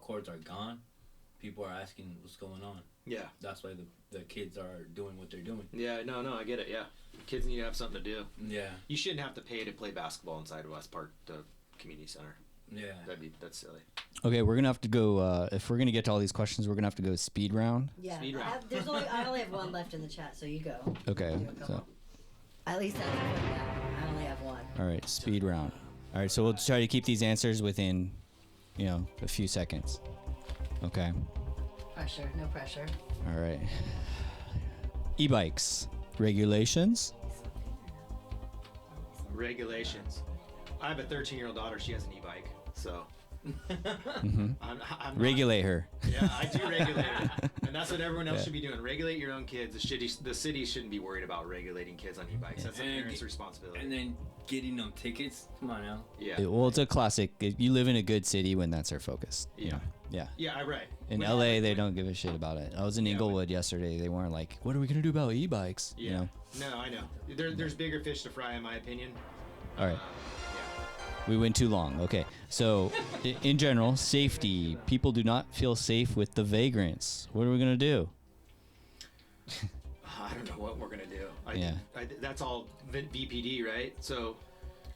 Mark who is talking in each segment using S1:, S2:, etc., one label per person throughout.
S1: chords are gone, people are asking what's going on.
S2: Yeah.
S1: That's why the, the kids are doing what they're doing.
S2: Yeah, no, no, I get it. Yeah, kids need to have something to do.
S1: Yeah,
S2: You shouldn't have to pay to play basketball inside West Park, the community center.
S1: yeah.
S2: That'd be that's silly.
S3: Okay, we're gonna have to go. Uh, if we're gonna get to all these questions, we're gonna have to go speed round.
S4: Yeah,
S2: Speed
S4: I,
S2: round.
S4: there's only I only have one left in the chat, so you go.
S3: Okay,
S4: You go.
S3: so
S4: At least I have one now. I only have one.
S3: all right, speed round. All right, so we'll try to keep these answers within, you know, a few seconds. Okay.
S4: Pressure, no pressure.
S3: All right. E-bikes regulations.
S2: Regulations. I have a 13 year old daughter. She has an e-bike, so
S3: Mm-hmm.
S2: I'm, I'm not-
S3: Regulate her.
S2: Yeah, I do regulate it, and that's what everyone else should be doing. Regulate your own kids. The city, the city shouldn't be worried about regulating kids on e-bikes. That's the
S1: And-
S2: parents' responsibility.
S1: And then getting them tickets. Come on now.
S2: yeah,
S3: It- well, it's a classic. If you live in a good city when that's our focus. you
S2: Yeah.
S3: know. Yeah.
S2: yeah, I right.
S3: In
S2: When-
S3: LA, they don't give a shit about it. I was in
S2: Yeah, but-
S3: Inglewood yesterday. They weren't like, "What are we gonna do about e-bikes?"
S2: Yeah.
S3: You know.
S2: No, I know. There, there's bigger fish to fry, in my opinion.
S3: All
S2: Uh,
S3: right.
S2: yeah.
S3: We went too long. Okay. So, i- in general, safety. People do not feel safe with the vagrants. What are we going to do?
S2: I don't know what we're gonna do. I,
S3: Yeah.
S2: I, that's all V- VPD, right? So,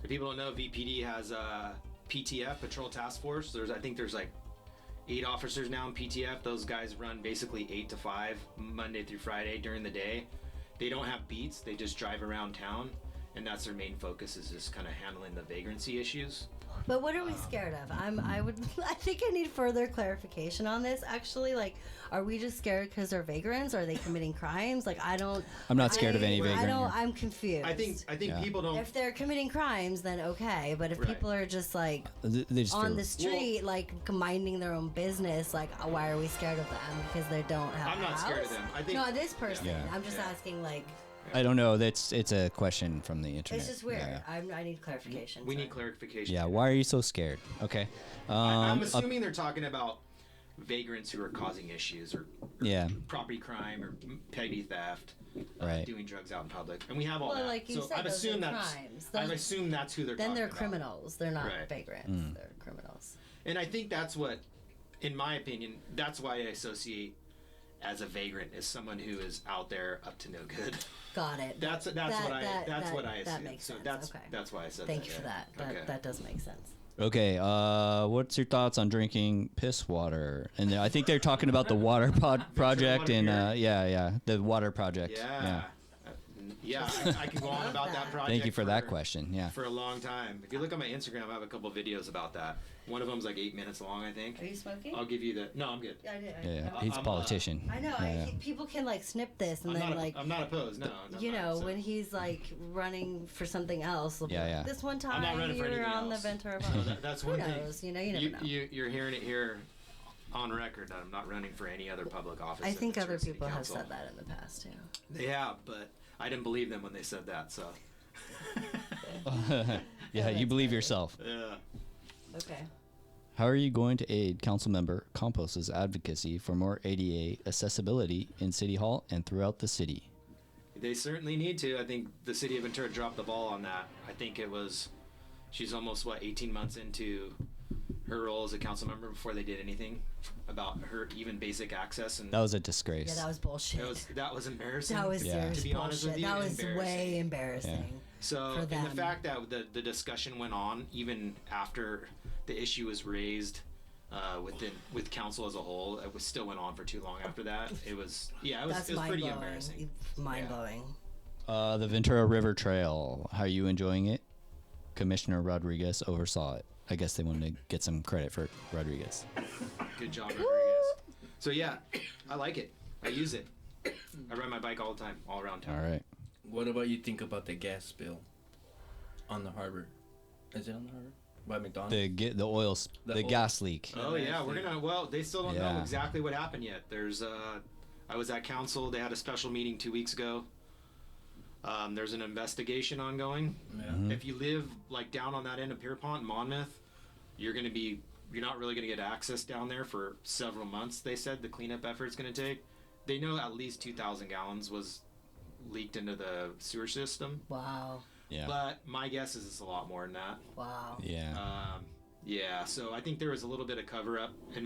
S2: if people don't know, VPD has uh, a PTF Patrol Task Force. There's, I think, there's like eight officers now in PTF. Those guys run basically eight to five, Monday through Friday during the day. They don't have beats. They just drive around town, and that's their main focus is just kind of handling the vagrancy issues.
S4: But what are we scared of? I'm. I would. I think I need further clarification on this. Actually, like, are we just scared because they're vagrants? Are they committing crimes? Like, I don't.
S3: I'm not scared of any
S4: I, I
S3: vagrant. here.
S4: don't. I'm confused.
S2: I think, I think
S3: Yeah.
S2: people don't.
S4: if they're committing crimes, then okay. But if
S2: Right.
S4: people are just like
S3: Th- they just
S4: on
S3: feel-
S4: the street, like minding their own business, like uh, why are we scared of them? Because they don't have.
S2: I'm
S4: a
S2: not
S4: house?
S2: scared of them. I think-
S4: no, this person.
S3: Yeah.
S4: I'm just
S2: Yeah.
S4: asking. Like,
S3: I don't know. That's it's a question from the internet.
S4: it's just weird.
S3: Yeah.
S4: I'm, I need clarification.
S2: we
S4: so.
S2: need clarification.
S3: Yeah, Why are you so scared? Okay. Um,
S2: I- I'm
S3: up-
S2: assuming they're talking about vagrants who are causing issues or, or
S3: Yeah.
S2: property crime or m- petty theft, uh,
S3: Right.
S2: doing drugs out in public, and we have all
S4: Well,
S2: that.
S4: like you
S2: so
S4: said,
S2: I've
S4: those
S2: assumed
S4: are
S2: that's
S4: crimes.
S2: I've
S4: Those-
S2: assumed that's who they're.
S4: Then they're
S2: talking about.
S4: criminals. They're not
S2: Right.
S4: vagrants.
S3: Hmm.
S4: They're criminals.
S2: and I think that's what, in my opinion, that's why I associate as a vagrant is someone who is out there up to no good.
S4: Got it.
S2: That's that's what I
S4: that-
S2: that's
S4: that-
S2: what I assume.
S4: that makes
S2: so
S4: sense.
S2: that's
S4: Okay.
S2: that's why I said
S4: Thank
S2: that.
S4: you for
S2: yeah.
S4: that. That,
S2: Okay.
S4: that does make sense.
S3: Okay. Uh, what's your thoughts on drinking piss water? And I think they're talking about the water pod project
S2: water
S3: and
S2: here.
S3: uh, yeah, yeah, the water project.
S2: yeah. Uh, n- Yeah, I, I could go on
S4: Love
S2: about that
S4: that.
S2: project.
S3: Thank you for that
S2: for-
S3: question. Yeah.
S2: for a long time. If you look on my Instagram, I have a couple videos about that. One of them's like eight minutes long, I think.
S4: Are you smoking?
S2: I'll give you the. No, I'm good.
S4: Yeah, I did. I,
S3: Yeah,
S4: I-
S3: yeah. he's a
S2: I'm, uh,
S3: politician.
S4: I know.
S3: Yeah, yeah.
S4: I, people can like snip this and
S2: I'm
S4: then
S2: not,
S4: like.
S2: I'm Oh, not opposed. No, no,
S4: you
S2: no,
S4: know,
S2: so-
S4: when he's like running for something else, they'll be
S3: Yeah,
S4: like,
S3: yeah.
S4: this one
S2: I'm
S4: time
S2: not running
S4: you
S2: for
S4: were
S2: anything
S4: on
S2: else.
S4: the Ventura
S2: No,
S4: Boulevard.
S2: that- that's
S4: Who
S2: one thing.
S4: knows? You know, you never know.
S2: You, you, are hearing it here on record that I'm not running for any other public office.
S4: I
S2: at
S4: think
S2: Ventura
S4: other
S2: City
S4: people have
S2: Council.
S4: said that in the past too.
S2: They have, but I didn't believe them when they said that. So,
S3: yeah, you believe yourself.
S2: yeah.
S4: Okay.
S3: How are you going to aid Councilmember Compos's advocacy for more ADA accessibility in City Hall and throughout the city?
S2: They certainly need to. I think the city of Ventura dropped the ball on that. I think it was, she's almost what 18 months into her role as a council member before they did anything about her even basic access, and
S3: That was a
S4: Yeah,
S3: disgrace.
S4: that was bullshit.
S2: that was that was embarrassing.
S4: That was
S3: Yeah.
S4: serious
S2: To be honest with
S4: bullshit.
S2: you,
S4: That was way embarrassing.
S2: So,
S4: for
S2: and the
S4: them.
S2: fact that the, the discussion went on even after the issue was raised uh, within with council as a whole, it was still went on for too long after that. It was yeah, it was,
S4: That's
S2: it was
S4: mind
S2: pretty
S4: blowing.
S2: embarrassing.
S4: Mind blowing.
S3: uh, the Ventura River Trail. How are you enjoying it? Commissioner Rodriguez oversaw it. I guess they wanted to get some credit for Rodriguez.
S2: Good job, Rodriguez. So yeah, I like it. I use it. I ride my bike all the time, all around
S3: All
S2: town.
S3: right.
S1: What about you think about the gas spill on the harbor? Is it on the harbor? By McDonald's?
S3: The get the oil, Uh, sp-
S1: The
S3: the,
S1: oil-
S3: gas leak.
S2: Oh yeah, we're gonna. Well, they still don't know
S3: Yeah.
S2: exactly what happened yet. There's. Uh, I was at council. They had a special meeting two weeks ago. Um, there's an investigation ongoing.
S1: Yeah.
S3: Hmm.
S2: If you live like down on that end of Pierpont, Monmouth, you're gonna be. You're not really gonna get access down there for several months. They said the cleanup effort's gonna take. They know at least 2,000 gallons was leaked into the sewer system.
S4: Wow.
S3: yeah.
S2: But my guess is it's a lot more than that.
S4: Wow.
S3: yeah.
S2: Um, yeah, so I think there was a little bit of cover up in